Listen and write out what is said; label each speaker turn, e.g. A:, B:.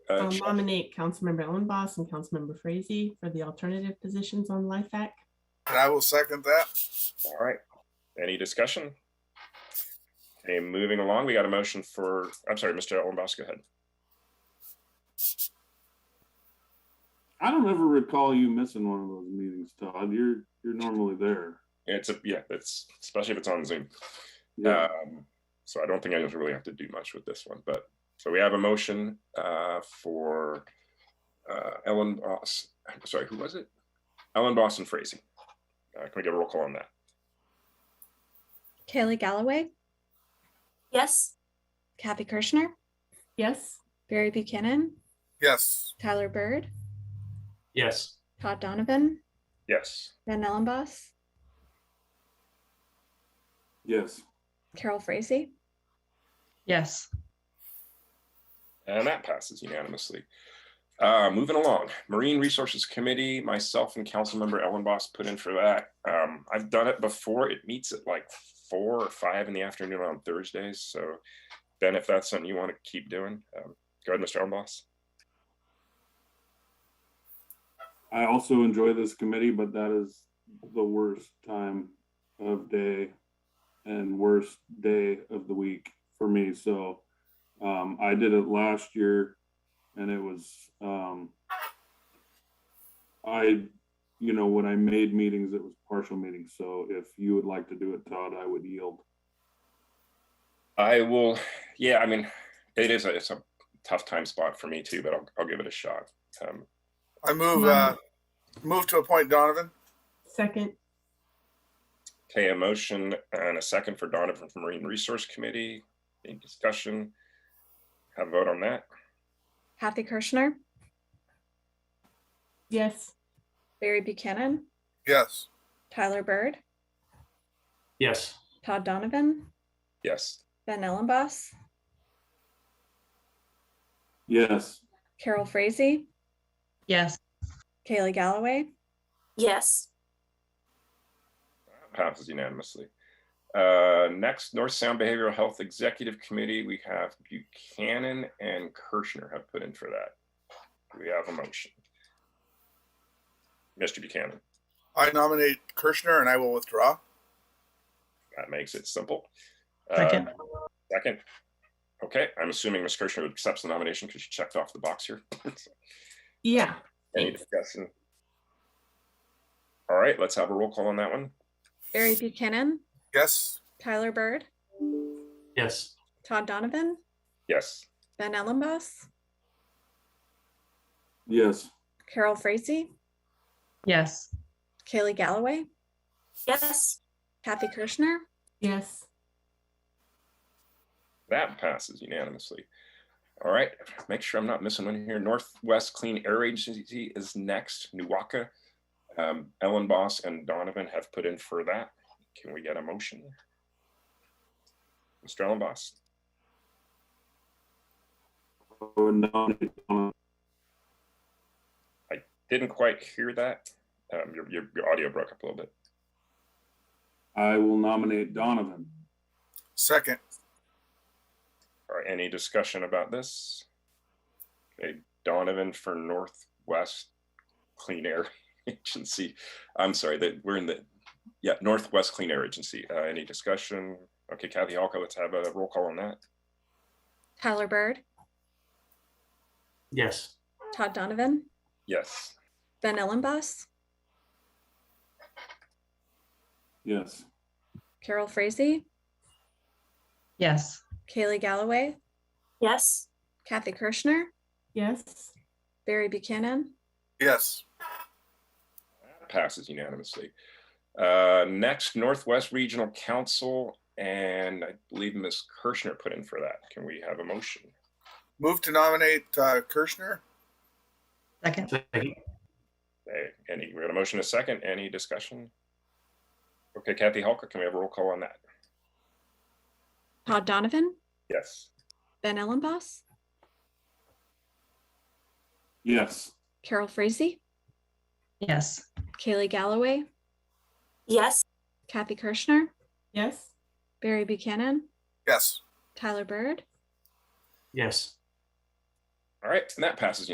A: Uh,
B: I'll
A: Ch-
B: Um, nominate Councilmember Ellenboss and Councilmember Frazee for the alternative positions on LIFAC.
C: And I will second that.
A: All right. Any discussion? Okay, moving along, we got a motion for, I'm sorry, Mr. Ellenboss, go ahead.
D: I don't ever recall you missing one of those meetings, Todd. You're you're normally there.
A: It's a, yeah, it's, especially if it's on Zoom.
D: Yeah.
A: Um, so I don't think I just really have to do much with this one, but, so we have a motion, uh, for, uh, Ellen Boss, I'm sorry, who was it? Ellen Boss and Frazee. Uh, can we get a roll call on that?
E: Kaylee Galloway,
F: Yes.
E: Kathy Kirschner,
B: Yes,
E: Barry Buchanan,
C: Yes.
E: Tyler Bird,
G: yes,
E: Todd Donovan,
A: Yes,
E: Ben Ellenboss,
D: Yes.
E: Carol Frazee.
H: yes,
A: and that passes unanimously. Uh, moving along, Marine Resources Committee, myself and Councilmember Ellen Boss put in for that. Um, I've done it before. It meets at like four or five in the afternoon on Thursdays, so Ben, if that's something you want to keep doing, um, go ahead, Mr. Ellen Boss.
D: I also enjoy this committee, but that is the worst time of day and worst day of the week for me. So um, I did it last year and it was, um, I, you know, when I made meetings, it was partial meetings. So if you would like to do it, Todd, I would yield.
A: I will, yeah, I mean, it is, a- it's a tough time spot for me too, but I'll, I'll give it a shot. Um,
C: I move, uh, move to appoint Donovan.
B: second,
A: Okay, a motion and a second for Donovan from Marine Resource Committee. Any discussion? Have a vote on that?
E: Kathy Kirschner,
B: yes,
E: Barry Buchanan,
C: Yes.
E: Tyler Bird,
G: yes,
E: Todd Donovan,
A: Yes.
E: Ben Ellenboss,
D: Yes.
E: Carol Frazee,
H: yes,
E: Kaylee Galloway,
F: Yes.
A: Passes unanimously. Uh, Next, North Sound Behavioral Health Executive Committee, we have Buchanan and Kirschner have put in for that. Do We have a motion. Mr. Buchanan,
C: I nominate Kirschner, and I will withdraw.
A: that makes it simple. Uh,
H: second,
A: Second. Okay, I'm assuming Ms. Kirschner accepts the nomination because she checked off the box here.
B: yeah,
A: Any
B: Thanks.
A: discussion? All right, let's have a roll call on that one.
E: Barry Buchanan,
C: Yes.
E: Tyler Bird,
G: yes,
E: Todd Donovan,
A: Yes.
E: Ben Ellenboss,
D: Yes.
E: Carol Frazee,
H: yes,
E: Kaylee Galloway,
F: Yes.
E: Kathy Kirschner,
B: yes,
A: That passes unanimously. All right, make sure I'm not missing one here. Northwest Clean Air Agency is next, Nuwaka. Um, Ellen Boss and Donovan have put in for that. Can we get a motion? Mr. Ellen Boss,
D: I would nominate Donovan.
A: didn't quite hear that. Um, your, your, your audio broke up a little bit.
D: I will nominate Donovan.
C: Second.
A: All right, any discussion about this? Okay, Donovan for Northwest Clean Air Agency. I'm sorry, that we're in the, yeah, Northwest Clean Air Agency. Uh, any discussion? Okay, Kathy Halka, let's have a roll call on that.
E: Tyler Bird,
G: yes,
E: Todd Donovan,
A: Yes.
E: Ben Ellenboss,
D: Yes.
E: Carol Frazee,
H: yes,
E: Kaylee Galloway,
F: Yes.
E: Kathy Kirschner,
B: yes,
E: Barry Buchanan,
C: Yes.
A: Passes unanimously. Uh, next, Northwest Regional Council, and I believe Ms. Kirschner put in for that. Can we have a motion?
C: Move to nominate uh, Kirschner.
H: second,
G: second,
A: Okay, any, we got a motion, a second, any discussion? Okay, Kathy Halka, can we have a roll call on that?
E: Todd Donovan,
A: Yes.
E: Ben Ellenboss,
D: Yes.
E: Carol Frazee,
H: yes,
E: Kaylee Galloway,
F: Yes.
E: Kathy Kirschner,
B: yes,
E: Barry Buchanan,
C: Yes.
E: Tyler Bird,
G: yes,
A: All right, and that passes